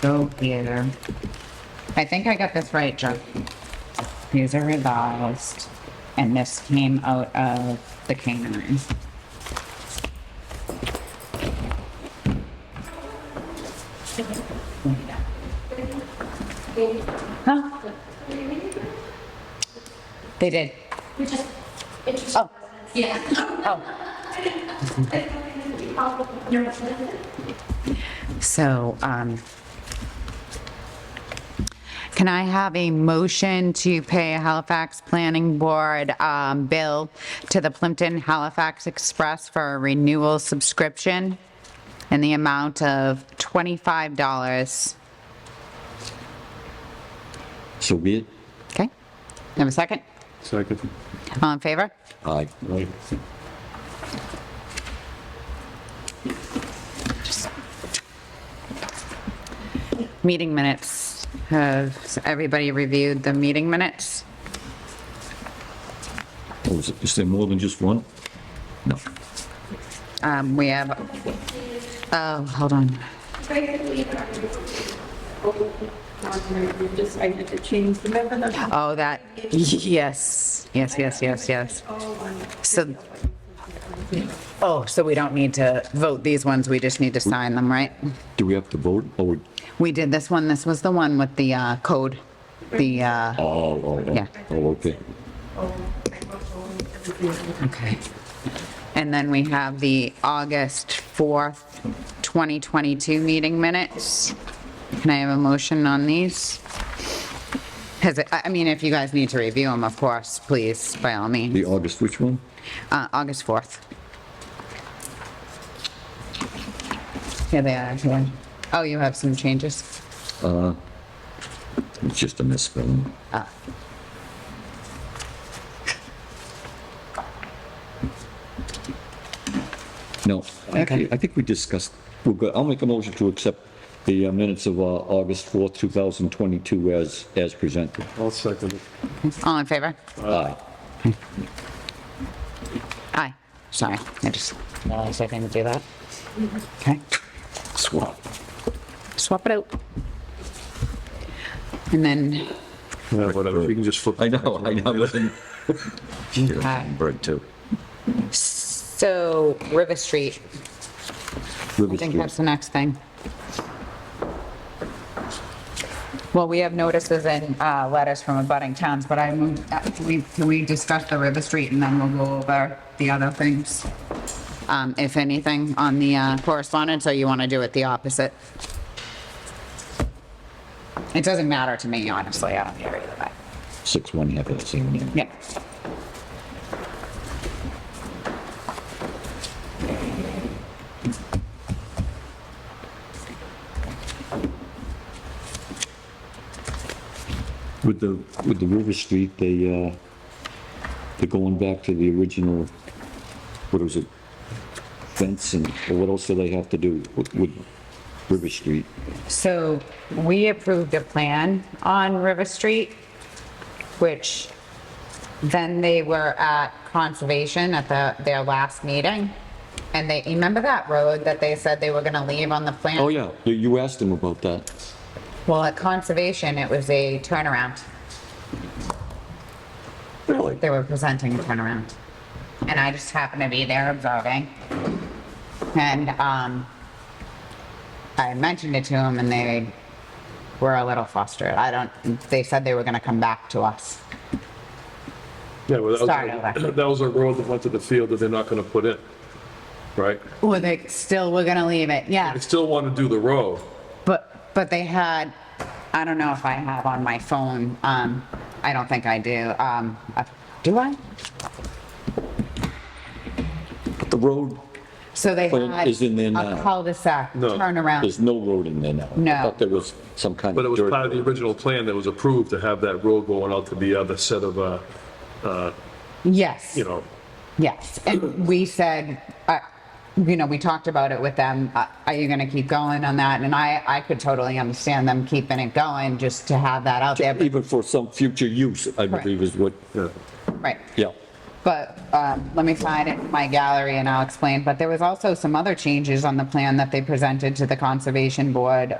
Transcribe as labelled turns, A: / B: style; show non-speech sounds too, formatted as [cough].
A: Go getter. I think I got this right, Joe. These are revised, and this came out of the canine. Huh? They did.
B: You're just interested.
A: Oh.
B: Yeah.
A: Oh.
B: [laughs] You're-
A: So, um, can I have a motion to pay Halifax Planning Board, um, bill to the Plimpton Halifax Express for a renewal subscription in the amount of $25?
C: So be it.
A: Okay? Have a second?
D: Second.
A: All in favor?
C: Aye.
A: Meeting minutes. Have everybody reviewed the meeting minutes?
C: Oh, is it- is there more than just one? No.
A: Um, we have, oh, hold on.
E: Oh, Just, I need to change the member number.
A: Oh, that, yes, yes, yes, yes, yes. So, oh, so we don't need to vote these ones, we just need to sign them, right?
C: Do we have to vote? Oh,
A: We did this one, this was the one with the uh, code, the,
C: oh,
A: uh,
C: oh,
A: Yeah.
C: oh, oh, okay.
A: okay. And then we have the August 4th, 2022 meeting minutes. Can I have a motion on these? Has, it- I I mean, if you guys need to review them, of course, please, by all means.
C: The August, which one?
A: uh, August 4th. Here they are, yeah. Oh, you have some changes?
C: It's just a misspelling. No, actually, I think we discussed, we're good. I'll make a motion to accept the uh, minutes of uh, August 4th, 2022 as, as presented.
D: I'll second it.
A: All in favor?
C: Aye.
A: Aye. Sorry, I just realized I didn't do that. Okay,
C: Swap.
A: swap it out. And then,
D: Yeah, whatever, you can just flip.
C: I know, I know. [laughs]
A: Aye.
C: Bird too.
A: so River Street, I think that's the next thing. Well, we have notices and uh, letters from abutting towns, but I moved, uh, can we, can we discuss the River Street and then we'll go over the other things? Um, if anything, on the uh, correspondence, or you want to do it the opposite? It doesn't matter to me, honestly, I don't care either way.
C: Six, one, half, that's the same.
A: Yeah.
C: With the, with the River Street, they, uh, they're going back to the original, what was it? Fence and, or what else do they have to do with, with River Street?
A: So we approved a plan on River Street, which then they were at conservation at the, their last meeting. And they, you remember that road that they said they were gonna leave on the plan?
C: Oh, yeah, you- you asked them about that.
A: Well, at conservation, it was a turnaround.
C: Really?
A: They were presenting a turnaround. And I just happened to be there observing. And, um, I mentioned it to them and they were a little flustered. I don't, they said they were gonna come back to us.
D: Yeah, well,
A: Start
D: that
A: over.
D: was, that was a road that went to the field that they're not gonna put in, right?
A: Well, they still were gonna leave it, yeah.
D: They still wanna do the road.
A: But, but they had, I don't know if I have on my phone, um, I don't think I do, um, uh, do I?
C: But the road,
A: So they
C: But it
A: had
C: is in there
A: a
C: now.
A: cul-de-sac
D: No.
C: there's
A: turnaround.
C: no road in there now.
A: No.
C: I thought there was some kind of
D: But it was
C: dirt.
D: part of the original plan that was approved to have that road going out to the other set of, uh, uh,
A: Yes,
D: you know,
A: yes. And we said, uh, you know, we talked about it with them, uh, are you gonna keep going on that? And I, I could totally understand them keeping it going just to have that out there. but-
C: Even for some future use, I
A: Correct.
C: believe is what,
D: yeah.
A: Right.
C: yeah.
A: But um, let me find it in my gallery and I'll explain. But there was also some other changes on the plan that they presented to the Conservation Board